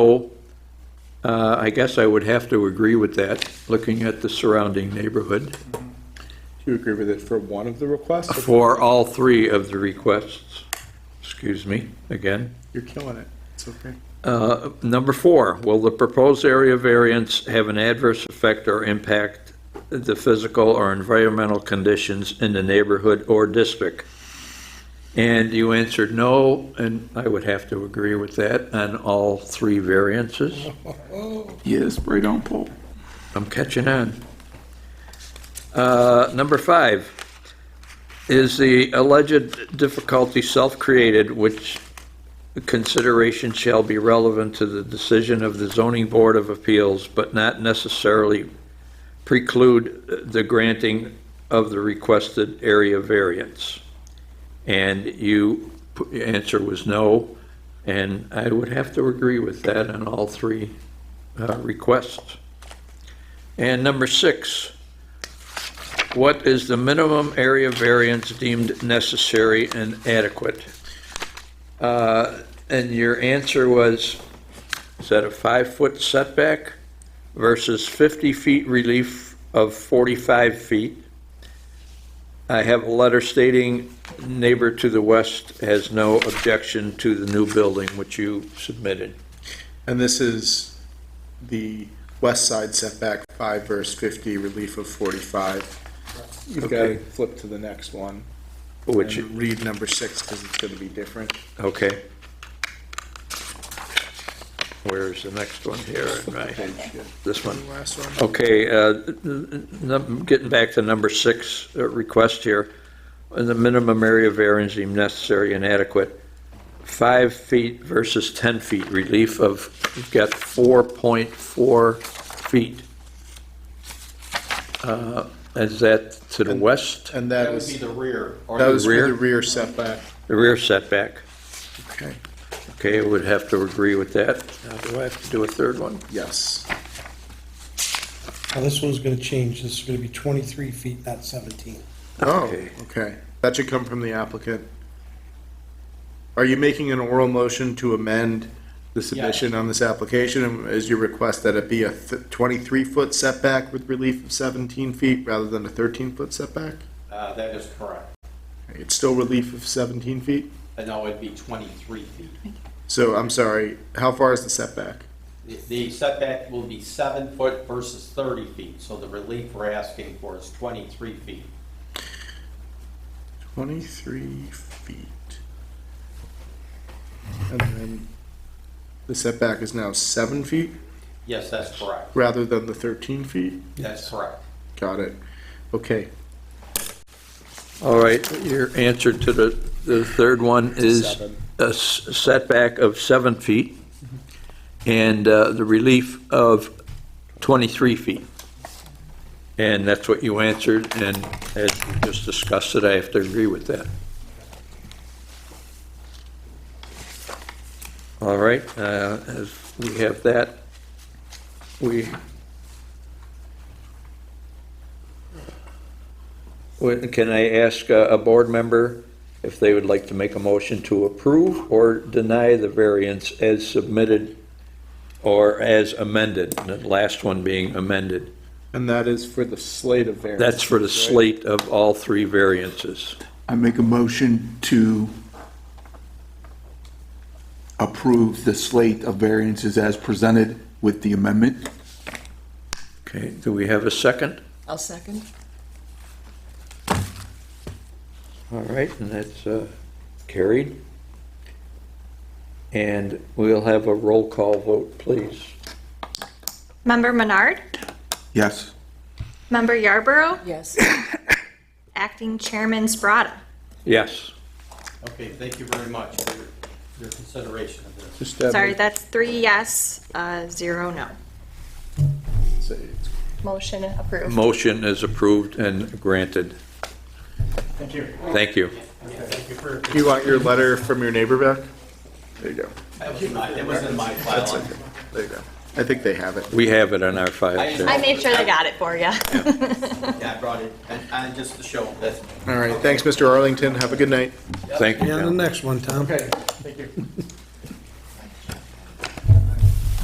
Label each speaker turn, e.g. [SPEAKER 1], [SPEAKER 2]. [SPEAKER 1] Oh, uh, I guess I would have to agree with that, looking at the surrounding neighborhood,
[SPEAKER 2] Do you agree with it for one of the requests?
[SPEAKER 1] for all three of the requests. Excuse me, again.
[SPEAKER 2] You're killing it. It's okay.
[SPEAKER 1] Uh, Number four, will the proposed area variance have an adverse effect or impact the physical or environmental conditions in the neighborhood or district? And you answered no, and I would have to agree with that on all three variances.
[SPEAKER 3] Yes, right on, Paul.
[SPEAKER 1] I'm catching on. Uh, Number five, is the alleged difficulty self-created which consideration shall be relevant to the decision of the zoning board of appeals, but not necessarily preclude the granting of the requested area variance? And you, your answer was no, and I would have to agree with that on all three uh, requests. And number six, what is the minimum area variance deemed necessary and adequate? Uh, And your answer was, is that a five-foot setback versus 50 feet relief of 45 feet? I have a letter stating neighbor to the west has no objection to the new building, which you submitted.
[SPEAKER 2] And this is the west side setback, five verse fifty, relief of forty-five. You've got
[SPEAKER 1] Okay.
[SPEAKER 2] to flip to the next one
[SPEAKER 1] Which,
[SPEAKER 2] and read number six because it's going to be different.
[SPEAKER 1] okay. Where's the next one here? Right, this one.
[SPEAKER 2] Last one.
[SPEAKER 1] Okay, uh, n- n- getting back to number six uh, request here, uh, the minimum area variance deemed necessary and adequate, five feet versus 10 feet, relief of, you've got 4.4 feet. Uh, Is that to the west,
[SPEAKER 2] And
[SPEAKER 4] That
[SPEAKER 2] that
[SPEAKER 4] would be
[SPEAKER 2] was,
[SPEAKER 4] the rear. or
[SPEAKER 2] that was
[SPEAKER 1] rear?
[SPEAKER 2] for the rear setback.
[SPEAKER 1] the rear setback?
[SPEAKER 2] Okay.
[SPEAKER 1] Okay, I would have to agree with that. Now, do I have to do a third one?
[SPEAKER 2] Yes.
[SPEAKER 5] Now, this one's gonna change, this is gonna be twenty-three feet, not seventeen.
[SPEAKER 2] Oh,
[SPEAKER 1] Okay.
[SPEAKER 2] okay. That should come from the applicant. Are you making an oral motion to amend the submission on this application? And Is your request that it be a twenty-three foot setback with relief of seventeen feet rather than a thirteen foot setback?
[SPEAKER 4] Uh, that is correct.
[SPEAKER 2] It's still relief of seventeen feet?
[SPEAKER 4] And no, it'd be twenty-three feet.
[SPEAKER 2] So I'm sorry, how far is the setback?
[SPEAKER 4] The- The setback will be seven foot versus thirty feet, so the relief we're asking for is twenty-three feet.
[SPEAKER 2] Twenty-three feet. And then the setback is now seven feet
[SPEAKER 4] Yes, that's correct.
[SPEAKER 2] rather than the thirteen feet?
[SPEAKER 4] That's correct.
[SPEAKER 2] Got it. Okay,
[SPEAKER 1] All right, your answer to the, the third one is
[SPEAKER 2] Seven.
[SPEAKER 1] a s- setback of seven feet and uh, the relief of 23 feet. And that's what you answered, and as we just discussed it, I have to agree with that. All right, uh, as we have that, we Well, Can I ask uh, a board member if they would like to make a motion to approve or deny the variance as submitted or as amended, the last one being amended?
[SPEAKER 2] and that is for the slate of variance.
[SPEAKER 1] That's for the slate of all three variances.
[SPEAKER 3] I make a motion to approve the slate of variances as presented with the amendment.
[SPEAKER 1] Okay, do we have a second?
[SPEAKER 6] I'll second.
[SPEAKER 1] All right, and that's uh, carried. And we'll have a roll call vote, please.
[SPEAKER 7] Member Menard,
[SPEAKER 3] Yes.
[SPEAKER 7] Member Yarborough,
[SPEAKER 6] Yes.
[SPEAKER 7] Acting Chairman Sprata.
[SPEAKER 1] Yes.
[SPEAKER 4] Okay, thank you very much for your- your consideration of this.
[SPEAKER 2] Just have
[SPEAKER 7] Sorry,
[SPEAKER 2] it
[SPEAKER 7] that's three yes, uh, zero no.
[SPEAKER 2] say it's-
[SPEAKER 8] Motion approved.
[SPEAKER 1] Motion is approved and granted.
[SPEAKER 4] Thank you.
[SPEAKER 1] Thank you.
[SPEAKER 4] Thank you for,
[SPEAKER 2] Do you want your letter from your neighbor back? There you go.
[SPEAKER 4] that was in my, that was in my file.
[SPEAKER 2] There you go. I think they have it.
[SPEAKER 1] We have it on our file, sir.
[SPEAKER 8] I made sure they got it for you.
[SPEAKER 4] Yeah, I brought it, and, and just to show them, that's
[SPEAKER 2] All right, thanks, Mr. Arlington. Have a good night.
[SPEAKER 1] Thank you,
[SPEAKER 5] Yeah, the
[SPEAKER 1] John.
[SPEAKER 5] next one, Tom.
[SPEAKER 4] Okay, thank you.